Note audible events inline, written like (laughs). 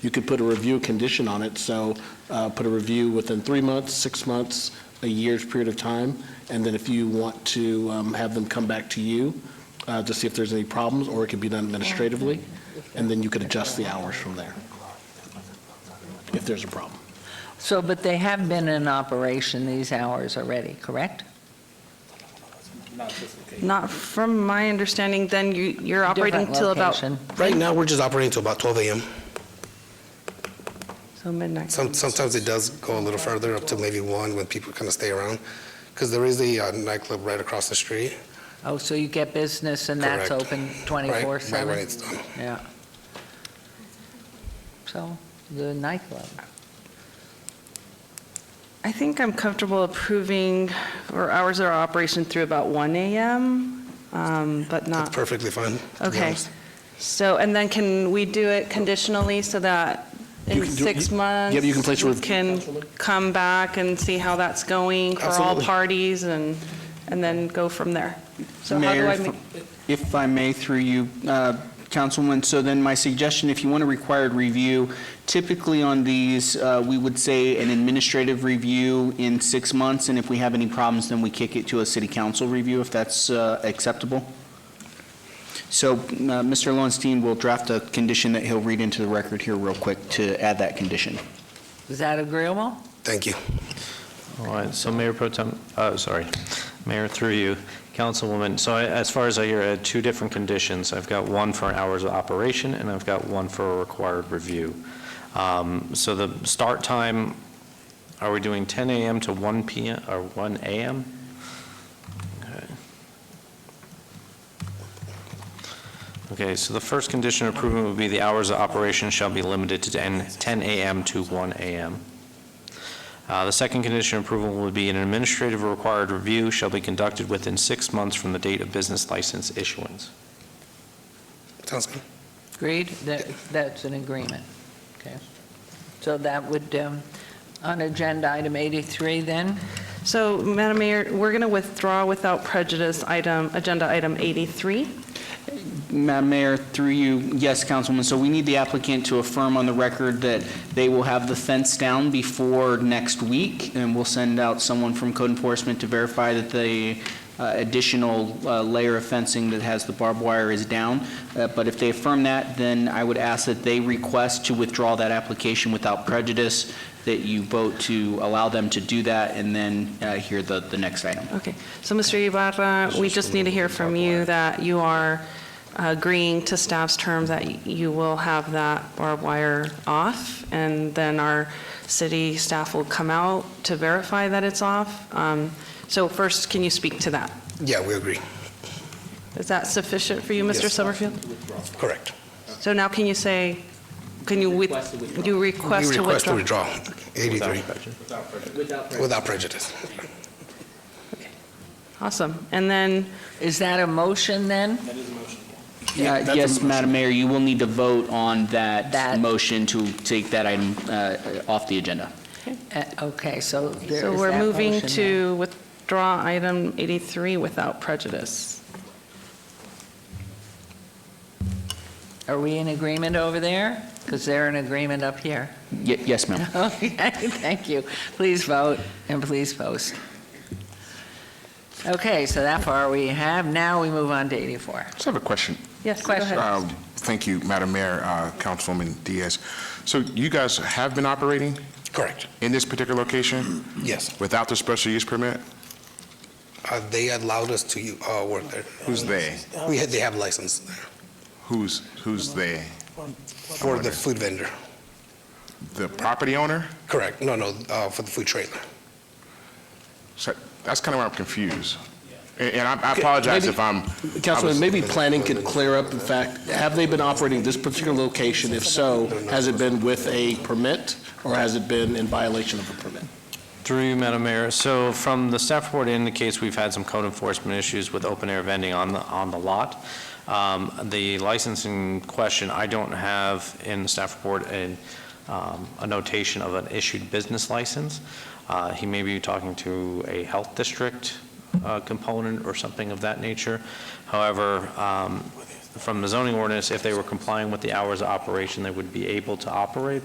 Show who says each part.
Speaker 1: you could put a review condition on it, so uh, put a review within three months, six months, a year's period of time, and then if you want to um, have them come back to you uh, to see if there's any problems, or it could be done administratively, and then you could adjust the hours from there if there's a problem.
Speaker 2: So, but they have been in operation these hours already, correct?
Speaker 3: Not from my understanding, then you, you're operating
Speaker 2: Different
Speaker 3: till about,
Speaker 2: location.
Speaker 4: Right now, we're just operating till about 12 a.m.
Speaker 3: so midnight.
Speaker 4: Some, sometimes it does go a little further, up to maybe 1 when people kind of stay around. Because there is a uh, nightclub right across the street.
Speaker 2: Oh, so you get business and that's
Speaker 4: Correct.
Speaker 2: open
Speaker 4: right-
Speaker 2: 24/7?
Speaker 4: Right when it's done.
Speaker 2: Yeah. So, the nightclub.
Speaker 3: I think I'm comfortable approving, or hours of operation through about 1 AM, um, but
Speaker 4: That's
Speaker 3: not,
Speaker 4: perfectly fine. to be
Speaker 3: okay.
Speaker 4: honest.
Speaker 3: So, and then can we do it conditionally so that
Speaker 1: You
Speaker 3: in
Speaker 1: can do-
Speaker 3: six
Speaker 1: you-
Speaker 3: months?
Speaker 1: yeah, but you can place a
Speaker 3: we
Speaker 1: rev-
Speaker 3: can come back and see how that's going for all
Speaker 4: Absolutely.
Speaker 3: parties and, and then go from there. So how do
Speaker 5: Mayor,
Speaker 3: I make?
Speaker 5: if- if I may, through you, uh, Councilwoman, so then my suggestion, if you want a required review, typically on these, uh, we would say an administrative review in six months, and if we have any problems, then we kick it to a city council review, if that's uh, acceptable. So uh, Mr. Lowenstein will draft a condition that he'll read into the record here real quick to add that condition.
Speaker 2: Is that agreeable?
Speaker 4: Thank you.
Speaker 6: All right, so Mayor Pro Tem, oh, sorry, Mayor, through you, Councilwoman, so I- as far as I hear, I had two different conditions. I've got one for hours of operation, and I've got one for a required review. Um, So the start time, are we doing 10 a.m. to 1 p.m., or 1 a.m.? Okay. Okay, so the first condition of approval would be the hours of operation shall be limited to 10 10 a.m. to 1 a.m. Uh, The second condition of approval would be an administrative required review shall be conducted within six months from the date of business license issuance.
Speaker 4: Sounds good.
Speaker 2: Agreed? That, that's an agreement. Okay. So that would, um, on agenda item 83 then?
Speaker 3: So, Madam Mayor, we're going to withdraw without prejudice item, agenda item 83.
Speaker 5: Madam Mayor, through you, yes, Councilwoman, so we need the applicant to affirm on the record that they will have the fence down before next week, and we'll send out someone from code enforcement to verify that the uh, additional uh, layer of fencing that has the barbed wire is down. Uh, But if they affirm that, then I would ask that they request to withdraw that application without prejudice, that you vote to allow them to do that, and then uh, hear the, the next item.
Speaker 3: Okay. So, Mr. Ibarra, we just need to hear from you that you are agreeing to staff's terms that you will have that barbed wire off, and then our city staff will come out to verify that it's off. Um, So first, can you speak to that?
Speaker 4: Yeah, we agree.
Speaker 3: Is that sufficient for you, Mr.
Speaker 4: Yes.
Speaker 3: Summerfield?
Speaker 4: Correct.
Speaker 3: So now can you say, can you, with- you
Speaker 4: We
Speaker 3: request to
Speaker 4: request to
Speaker 3: withdraw?
Speaker 4: withdraw, 83,
Speaker 5: Without
Speaker 4: without prejudice.
Speaker 3: Awesome. And then,
Speaker 2: Is that a motion then?
Speaker 5: Uh,
Speaker 4: that's a
Speaker 5: Yes,
Speaker 4: motion.
Speaker 5: Madam Mayor, you will need to vote on
Speaker 2: That.
Speaker 5: that motion to take that item uh, off the agenda.
Speaker 2: Uh, Okay, so there is
Speaker 3: so we're
Speaker 2: that
Speaker 3: moving
Speaker 2: motion then.
Speaker 3: to withdraw item 83 without prejudice.
Speaker 2: Are we in agreement over there? Because they're in agreement up here.
Speaker 5: Ye- Yes, ma'am.
Speaker 2: (laughs) Okay, thank you. Please vote and please post. Okay, so that far we have. Now we move on to 84.
Speaker 7: Just have a question.
Speaker 3: Yes, go ahead.
Speaker 7: Uh, Thank you, Madam Mayor, uh, Councilwoman Diaz. So you guys have been operating
Speaker 4: Correct,
Speaker 7: in this particular location
Speaker 4: yes.
Speaker 7: without the special use permit?
Speaker 4: Uh, They allowed us to uh, work there.
Speaker 7: Who's they?
Speaker 4: We had, they have license there
Speaker 7: Who's, who's they?
Speaker 4: for the food vendor.
Speaker 7: The property owner?
Speaker 4: Correct, no, no, uh, for the food trailer.
Speaker 7: So That's kind of where I'm confused. And and I I apologize
Speaker 1: Maybe-
Speaker 7: if I'm,
Speaker 1: Councilman, maybe planning could clear up, in fact, have they been operating this particular location? If so, has it been with a permit, or has it been in violation of a permit?
Speaker 6: Through you, Madam Mayor, so from the staff report it indicates we've had some code enforcement issues with open-air vending on the, on the lot. Um, The licensing question, I don't have in the staff report a, um, a notation of an issued business license. Uh, He may be talking to a health district uh, component or something of that nature. However, um, from the zoning ordinance, if they were complying with the hours of operation, they would be able to operate,